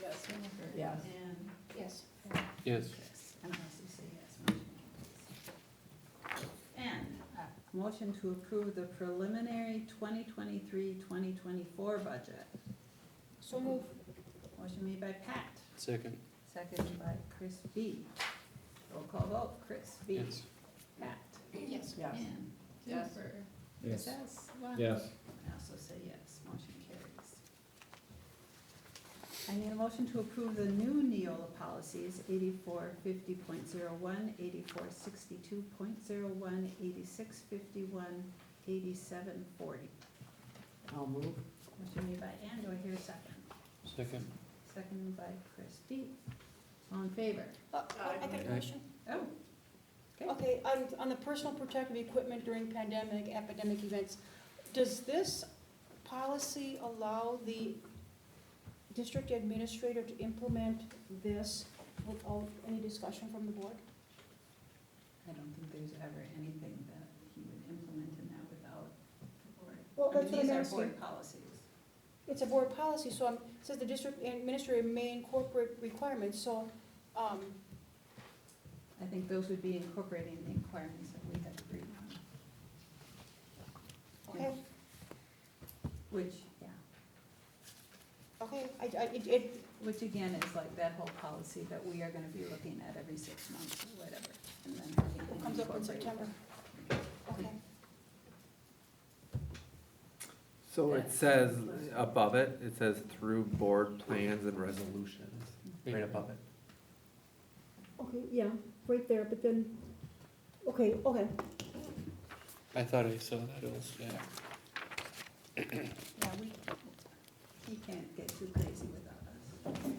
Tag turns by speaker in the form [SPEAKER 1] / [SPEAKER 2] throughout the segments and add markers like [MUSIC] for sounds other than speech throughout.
[SPEAKER 1] Jennifer.
[SPEAKER 2] Yes.
[SPEAKER 1] And
[SPEAKER 3] Yes.
[SPEAKER 4] Yes.
[SPEAKER 1] Chris, and I also say yes, motion carries. And uh, motion to approve the preliminary 2023-2024 budget.
[SPEAKER 3] So move.
[SPEAKER 1] Motion made by Pat,
[SPEAKER 4] Second,
[SPEAKER 1] seconded by Chris B. Roll call vote, Chris B.
[SPEAKER 4] yes.
[SPEAKER 1] Pat.
[SPEAKER 3] Yes.
[SPEAKER 2] Yes.
[SPEAKER 1] And
[SPEAKER 3] Yes.
[SPEAKER 1] Jennifer.
[SPEAKER 5] Yes.
[SPEAKER 1] Yes. Wow.
[SPEAKER 5] Yes.
[SPEAKER 1] I also say yes, motion carries. I need a motion to approve the new Neola policies, 8450.01, 8462.01, 8651, 8751, 8752, 8753, 8754, 8755, 8756, 8757, 8758, 8759, 8760, 8761, 8762, 8763, 8764, 8765, 8767, 8768, 8769, 8770, 8771, 8772, 8773, 8774, 8775, 8776, 8777, 8778, 8779, 8780, 8781, 8782, 8783, 8784, 8785, 8786, 8787, 8788, 8789, 8790, 8791, 8792, 8793, 8794, 8795, 8796, 8797, 8798, 8799, 8700, 8701, 8702, 8703, 8704, 8705, 8706, 8707, 8708, 8709, 8710, 8711, 8712, 8713, 8714, 8715, 8716, 8717, 8718, 8719, 8720, 8721, 8722, 8723, 8724, 8725, 8726, 8727, 8728, 8729, 8730, 8731, 8732, 8733, 8734, 8735, 8736, 8737, 8738, 8739, 8740, 8741, 8742, 8743, forty.
[SPEAKER 2] I'll
[SPEAKER 1] Motion made by
[SPEAKER 2] move.
[SPEAKER 1] Ann, do I hear a second? Seconded
[SPEAKER 4] Second.
[SPEAKER 1] by Christie. All in favor?
[SPEAKER 3] Uh, I got a question.
[SPEAKER 1] Oh, Okay.
[SPEAKER 3] Okay, on, on the personal protective equipment during pandemic, epidemic events, does this policy allow the district administrator to implement this without any discussion from the board?
[SPEAKER 1] I don't think there's ever anything that he would implement in that without the board.
[SPEAKER 3] Well,
[SPEAKER 1] I mean,
[SPEAKER 3] that's what I'm
[SPEAKER 1] These are
[SPEAKER 3] asking.
[SPEAKER 1] board policies.
[SPEAKER 3] It's a board policy, so i it says the district administrator may incorporate requirements, so, um,
[SPEAKER 1] I think those would be incorporating the requirements that we have agreed on.
[SPEAKER 3] okay,
[SPEAKER 1] Which, yeah,
[SPEAKER 3] okay, I, I, it, it,
[SPEAKER 1] which again is like that whole policy that we are gonna be looking at every six months or whatever, and then having it
[SPEAKER 3] comes up in
[SPEAKER 1] incorporated.
[SPEAKER 3] September. Okay,
[SPEAKER 5] So it says, above it, it says through board plans and resolutions, right above it.
[SPEAKER 3] okay, yeah, right there, but then, okay, okay.
[SPEAKER 4] I thought I saw that also, yeah.
[SPEAKER 1] Yeah, we, he can't get too crazy without us.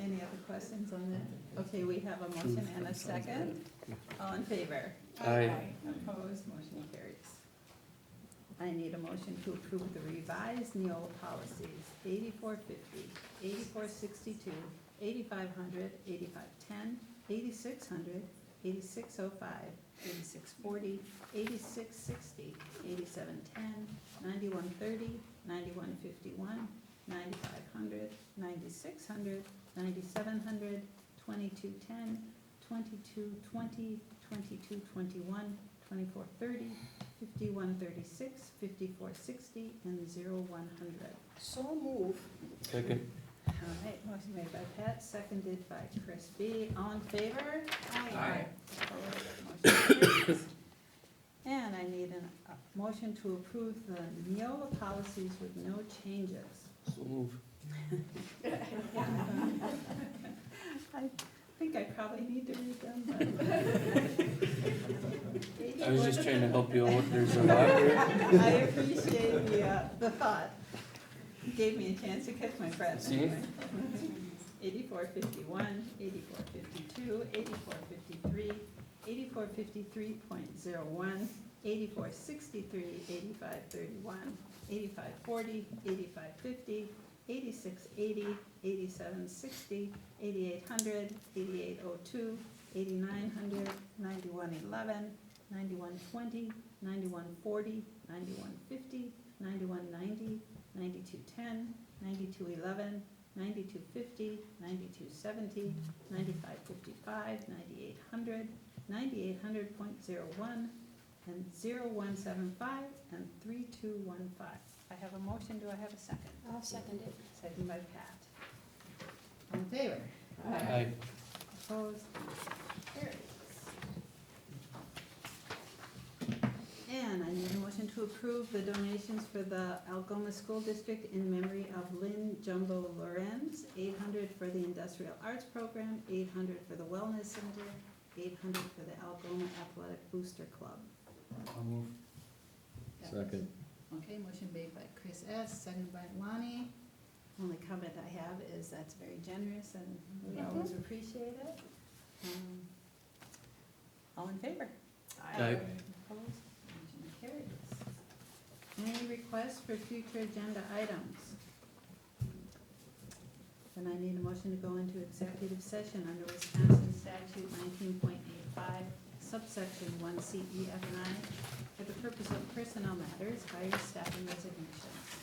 [SPEAKER 1] Any other questions on that? Okay, we have a motion and a second. All in favor?
[SPEAKER 4] Aye.
[SPEAKER 1] Opposed, motion carries. I need a motion to approve the revised Neola policies, 8450, 8462, 8500, 8510, 8600, 8605, 8640, 8660, 8710, 9130, 9151, 9500, 9600, 9700, 2210, 2220, 2221, 2430, 5136, 5460, and 0100.
[SPEAKER 3] So move.
[SPEAKER 4] Second.
[SPEAKER 1] All right, motion made by Pat, seconded by Chris B. All in favor?
[SPEAKER 5] Aye.
[SPEAKER 1] Opposed? Motion carries. And I need an- a motion to approve the Neola policies with no changes.
[SPEAKER 4] So move.
[SPEAKER 1] I think I probably need to read them, but.
[SPEAKER 4] I was just trying to help you out,
[SPEAKER 1] [LAUGHS]
[SPEAKER 2] [LAUGHS]
[SPEAKER 4] there's a lot here.
[SPEAKER 1] I appreciate the, uh, the thought. Gave me a chance to catch my breath
[SPEAKER 4] See?
[SPEAKER 1] anyway. Eighty-four fifty-one, eighty-four fifty-two, eighty-four fifty-three, eighty-four fifty-three point zero one, eighty-four sixty-three, eighty-five thirty-one, eighty-five forty, eighty-five fifty, eighty-six eighty, eighty-seven sixty, eighty-eight hundred, eighty-eight oh two, eighty-nine hundred, ninety-one eleven, ninety-one twenty, ninety-one forty, ninety-one fifty, ninety-one ninety, ninety-two ten, ninety-two eleven, ninety-two fifty, ninety-two seventy, ninety-five fifty-five, ninety-eight hundred, ninety-eight hundred point zero one, and zero one seven five, and three two one five. I have a motion, do I have a second?
[SPEAKER 3] I'll second it.
[SPEAKER 1] Second by Pat. All in favor?
[SPEAKER 4] Aye.
[SPEAKER 1] Opposed? Carries. And I need a motion to approve the donations for the Algoma School District in memory of Lynn Jumbo Lorenz, eight hundred for the Industrial Arts Program, eight hundred for the Wellness Center, eight hundred for the Algoma Athletic Booster Club.
[SPEAKER 4] I'll move.
[SPEAKER 5] Second.
[SPEAKER 1] Okay, motion made by Chris S., seconded by Lonnie. Only comment I have is that's very generous and we always appreciate it. Um, All in favor?
[SPEAKER 4] Aye.
[SPEAKER 1] Opposed? Motion carries. Any requests for future agenda items? Then I need a motion to go into executive session under Wisconsin statute nineteen point eight five, subsection one C E F and I, for the purpose of personnel matters, hire staff and resignations.